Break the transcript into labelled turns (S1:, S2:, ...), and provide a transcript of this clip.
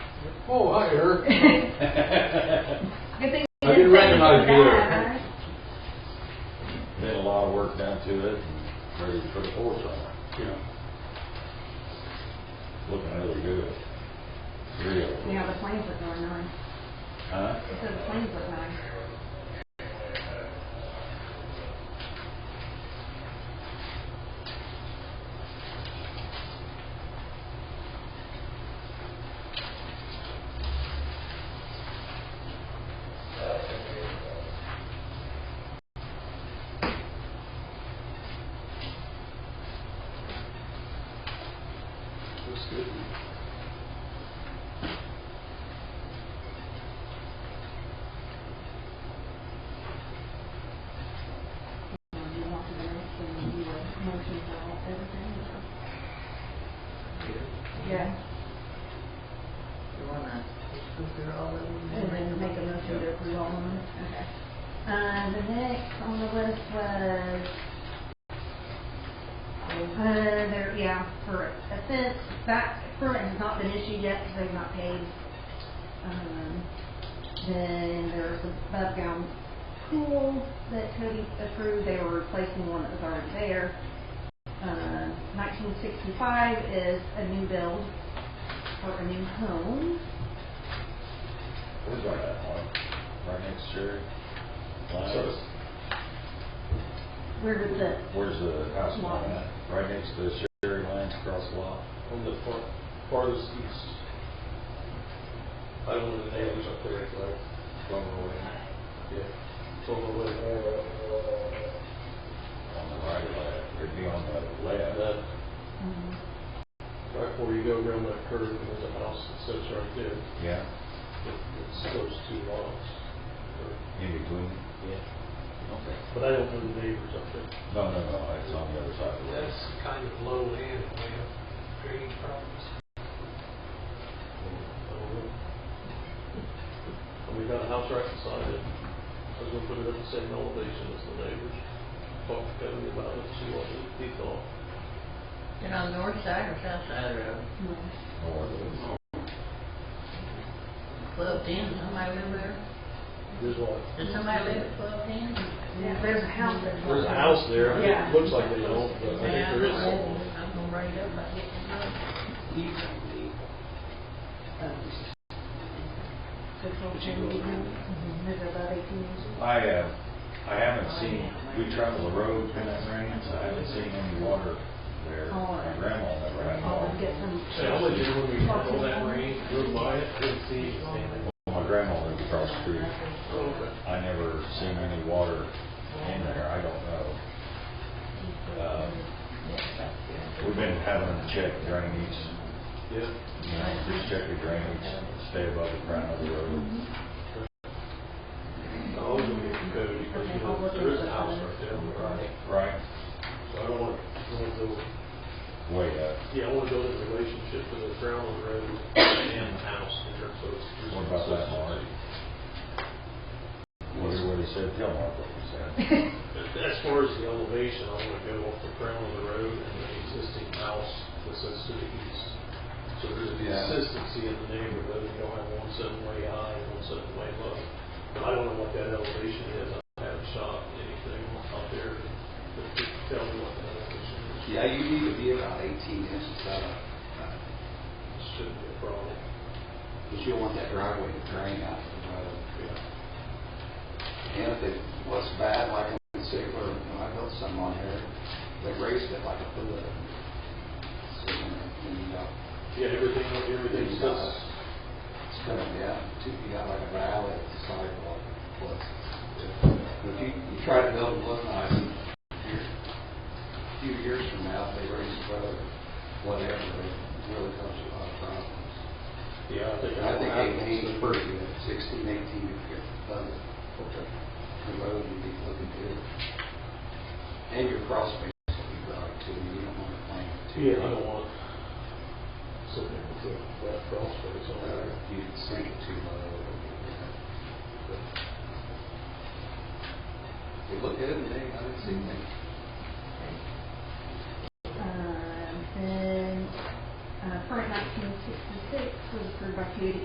S1: Oh, hi, Eric.
S2: Good thing you didn't
S1: I didn't
S2: say anything
S1: recognize you there.
S2: bad.
S3: Did a lot of work done to it, and ready for the fourth one.
S1: Yeah.
S3: Looking really good. Real.
S2: You know, the planes look really nice.
S3: Huh?
S2: It said the planes look nice.
S1: Looks good.
S2: You know, you walk in the next and you were motion for all- everything. you know. Yeah,
S4: You wanna just go through all of them?
S2: and then make a motion to approve all of them. Okay. Uh, the next on the list was, uh, there, yeah, for offense, back, permit has not been issued yet because they've not paid. Um, Then there was a above ground pool that Cody approved, they were replacing one that was already there. Uh, 1965 is a new build for a new home.
S3: Where's our that one? Right next to your line?
S1: So it's-
S2: Where did the,
S3: Where's the house
S2: Lot.
S3: line at? Right next to the Sherry Lines across the lot?
S1: On the far, farthest east. I don't know the names up there, it's like,
S3: Over on
S1: yeah, it's on the way. uh,
S3: the right or left, it'd be on the
S1: And
S3: left.
S1: then,
S2: um,
S1: right before you go around that curve, there's a house that sits right there,
S3: Yeah,
S1: it's those two lots.
S3: in between.
S1: Yeah.
S3: Okay.
S1: But I don't know the neighbors up there.
S3: No, no, no, it's on the other side of the road.
S5: That's kind of low land, we have grading problems.
S1: And we got a house right beside it. I was gonna put it at the same elevation as the neighbors. Talk to Cody about it, see what he thought.
S4: And on the north side or south side of the road?
S2: no.
S3: Or the-
S4: Twelve ten, somebody live there?
S1: There's like,
S4: Does somebody live at twelve ten?
S2: Yeah, there's a house that's.
S1: there's a house there.
S2: Yeah.
S1: It looks like they don't, but I think
S4: Yeah,
S1: there is.
S4: I'm gonna- I'm gonna write it up, I get to know.
S5: You can be,
S2: Mhm. There's about eighteen inches.
S3: I, uh, I haven't seen, we travel the road in that range, I haven't seen any water there. My grandma never had water.
S2: I'll Oh, get some.
S1: So I would do when we go that range, go by it, and see.
S3: My grandma lived across the street. I never seen any water in there, I don't know. Uh, We've been having them check drainage,
S1: Yeah.
S3: you know, just check the drainage, stay above the ground of the road.
S1: I was gonna get from Cody, because you know, there is a house right there on the right.
S3: Right,
S1: So I don't want, I want to, go-
S3: way up.
S1: yeah, I want to build a relationship to the ground on the road and the house there, so it's.
S3: What about that, Mark? What did, what he said, tell Mark what he said.
S1: As far as the elevation, I want to go off the crown of the road and the existing house that sits to the east. So there's a
S3: Yeah.
S1: consistency in the neighborhood, you don't have one sitting way high and one sitting way low. But I don't know what that elevation is, I haven't shot anything up there that could tell me what that elevation is.
S5: yeah, you need to be about eighteen inches out of,
S1: Shouldn't be a problem.
S5: because you don't want that driveway to drain out of the road.
S1: Yeah.
S5: And if it was bad, like in Sigler, you know, I built some on here, they raised it like a foot. So, you know,
S1: Yeah, everything, everything sits,
S5: it's kind of, yeah, two feet out like a valley, it's sidewalk, plus. If you, you try to build it look nice, and you're- a few years from now, if they raise the road, whatever, it really causes a lot of problems.
S1: yeah, I think.
S5: I think eighteen is
S1: it's
S5: pretty good, sixteen, eighteen, if you're above it, the road would be looking good. And your cross space will be broad too, you don't want to plant too.
S1: Yeah, I
S5: low.
S1: don't want something with a flat cross space on
S5: Uh,
S1: there.
S5: You can sink it too low. or- It looked good, and I didn't see anything.
S2: Um, Then, uh, permit nineteen sixty-six was approved by Cody